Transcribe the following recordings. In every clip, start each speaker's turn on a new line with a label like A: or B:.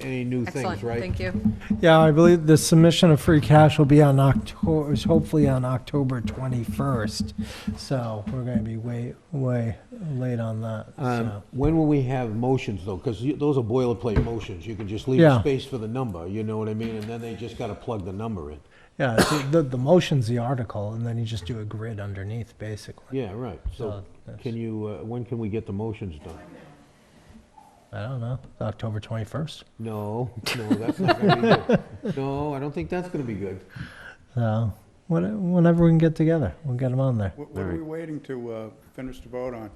A: Any new
B: Excellent,
A: things, right?
B: thank you.
C: Yeah, I believe the submission of free cash will be on October, is hopefully on October 21st. So we're going to be way, way late on that.
A: Um,
C: so.
A: When will we have motions, though? Because those are boilerplate motions. You can just leave
C: Yeah.
A: space for the number, you know what I mean? And then they just got to plug the number in.
C: Yeah, so the, the motion's the article, and then you just do a grid underneath, basically.
A: Yeah, right. So
C: So that's-
A: can you, uh, when can we get the motions done?
C: I don't know, October 21st.
A: No, no, that's not going to be good. No, I don't think that's going to be good.
C: So when- whenever we can get together, we'll get them on there.
D: What what are we waiting to uh, finish the vote on?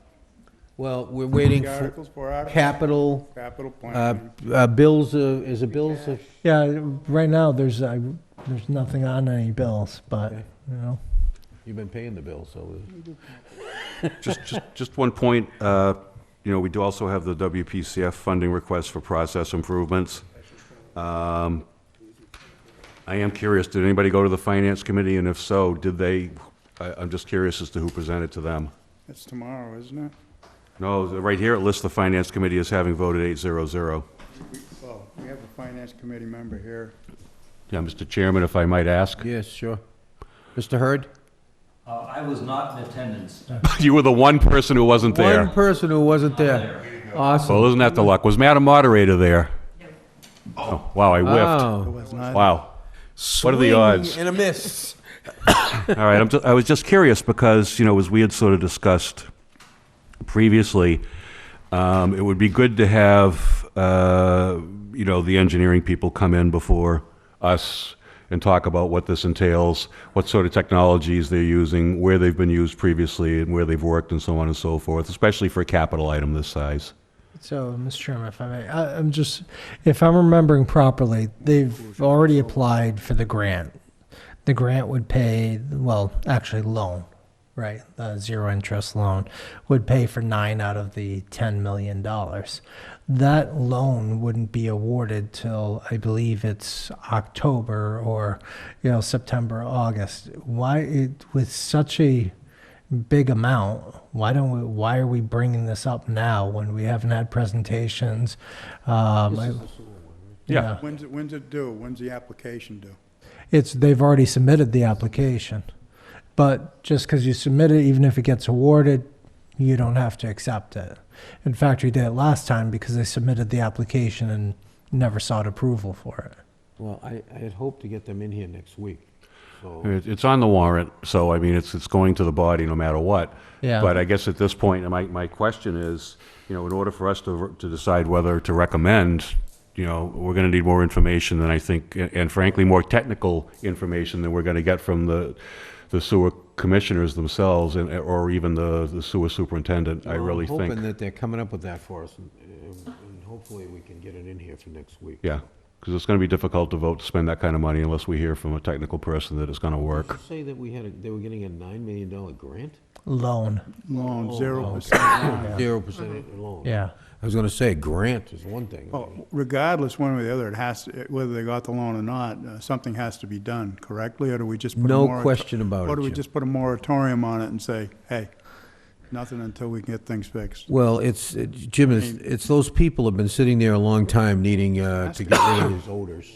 A: Well, we're waiting
D: The
A: for
D: articles, four articles,
A: capital,
D: capital
A: uh,
D: plan,
A: uh, bills, uh, is it bills? or-
C: Yeah, right now, there's, I, there's nothing on any bills, but,
A: Okay.
C: you know.
A: You've been paying the bills, so. uh,
E: Just, just, just one point, uh, you know, we do also have the WPCF funding request for process improvements. Um, I am curious, did anybody go to the Finance Committee, and if so, did they, I, I'm just curious as to who presented to them.
D: it's tomorrow, isn't it?
E: No, right here, it lists the Finance Committee as having voted eight zero zero.
D: Well, we have a finance committee member here.
E: Yeah, Mr. Chairman, if I might ask,
A: Yes, sure. Mr. Hurd?
F: Uh, I was not in attendance.
E: you were the one person who wasn't
A: One
E: there.
A: person who wasn't there. Awesome.
E: Well, isn't that the luck? Was Madam Moderator there? Oh, wow, I whiffed.
A: Oh.
E: Wow. What are the odds?
A: And a miss.
E: All right, I'm ju- I was just curious because, you know, as we had sort of discussed previously, um, it would be good to have, uh, you know, the engineering people come in before us and talk about what this entails, what sort of technologies they're using, where they've been used previously, and where they've worked, and so on and so forth, especially for a capital item this size.
C: So, Mr. Chairman, if I may, I, I'm just, if I'm remembering properly, they've already applied for the grant. The grant would pay, well, actually loan, right? The zero interest loan would pay for nine out of the $10 million. That loan wouldn't be awarded till, I believe it's October or, you know, September, August. Why, it, with such a, big amount. Why don't we, why are we bringing this up now when we haven't had presentations? Um, I-
E: Yeah.
D: When's it, when's it due? When's the application due?
C: It's, they've already submitted the application. But just because you submit it, even if it gets awarded, you don't have to accept it. In fact, we did it last time because they submitted the application and never sought approval for it.
A: Well, I, I had hoped to get them in here next week, so.
E: It- It's on the warrant, so I mean, it's, it's going to the body no matter what.
C: Yeah.
E: But I guess at this point, my, my question is, you know, in order for us to, to decide whether to recommend, you know, we're gonna need more information than I think, and frankly, more technical information than we're gonna get from the, the sewer commissioners themselves and, or even the, the sewer superintendent, I
A: Well, I'm
E: really
A: Hoping
E: think.
A: that they're coming up with that for us, and- and hopefully we can get it in here for next week.
E: Yeah, because it's gonna be difficult to vote to spend that kind of money unless we hear from a technical person that it's gonna work.
A: Say that we had, a- they were getting a $9 million grant?
C: Loan,
A: Oh,
D: Loan, zero percent loan.
A: Zero percent loan.
C: Mm-hmm. yeah.
A: I was gonna say, grant is one thing.
E: Oh.
D: Well, regardless, one way or the other, it has, to- whether they got the loan or not, uh, something has to be done correctly, or do we just put a
A: No
D: morato-
A: question about
D: Or
A: it,
D: do we
A: Jim.
D: just put a moratorium on it and say, hey, nothing until we get things fixed?
A: Well, it's, it- Jim, it's, it's those people have been sitting there a long time needing uh, to get rid of these odors.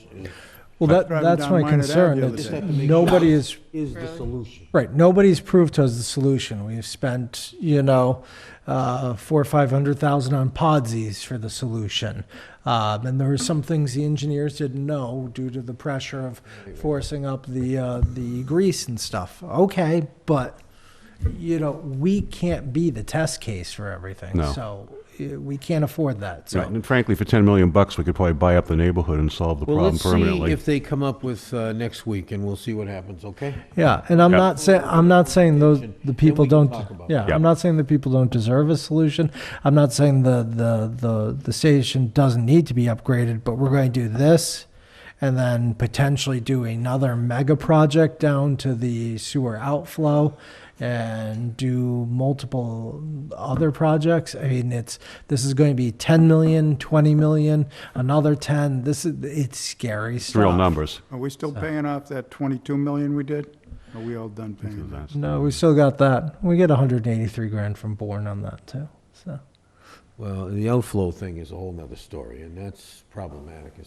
C: Well, that,
D: Driving
C: that's
D: down
C: my
D: Minot Ave the
C: concern.
D: other
C: It's-
D: day.
C: Nobody is
A: Is the solution.
C: Right. Nobody's proved to us the solution. We've spent, you know, uh, four or five hundred thousand on podsies for the solution, um, and there were some things the engineers didn't know due to the pressure of forcing up the uh, the grease and stuff. Okay, but you know we can't be the test case for everything,
E: No.
C: so uh, we can't afford that. So.
E: Right, And frankly, for 10 million bucks, we could probably buy up the neighborhood and solve the
A: Well,
E: problem
A: let's see
E: permanently.
A: if they come up with uh, next week, and we'll see what happens, okay?
C: Yeah, and I'm
E: Yeah.
C: not saying I'm not saying those the
A: Then
C: people
A: we can
C: don't.
A: talk about
C: Yeah,
E: it.
C: I'm
E: Yeah.
C: not saying the people don't deserve a solution. I'm not saying the the the the station doesn't need to be upgraded, but we're going to do this, and then potentially do another mega project down to the sewer outflow, and do multiple other projects. I mean, it's this is going to be 10 million, 20 million, another 10. This is it's scary
E: It's
C: stuff.
E: real numbers.
D: Are we still paying off that 22 million we did? Are we all done paying that?
C: No, we still got that. We get 183 grand from Bourne on that too. So
A: Well, the outflow thing is a whole nother story, and that's problematic as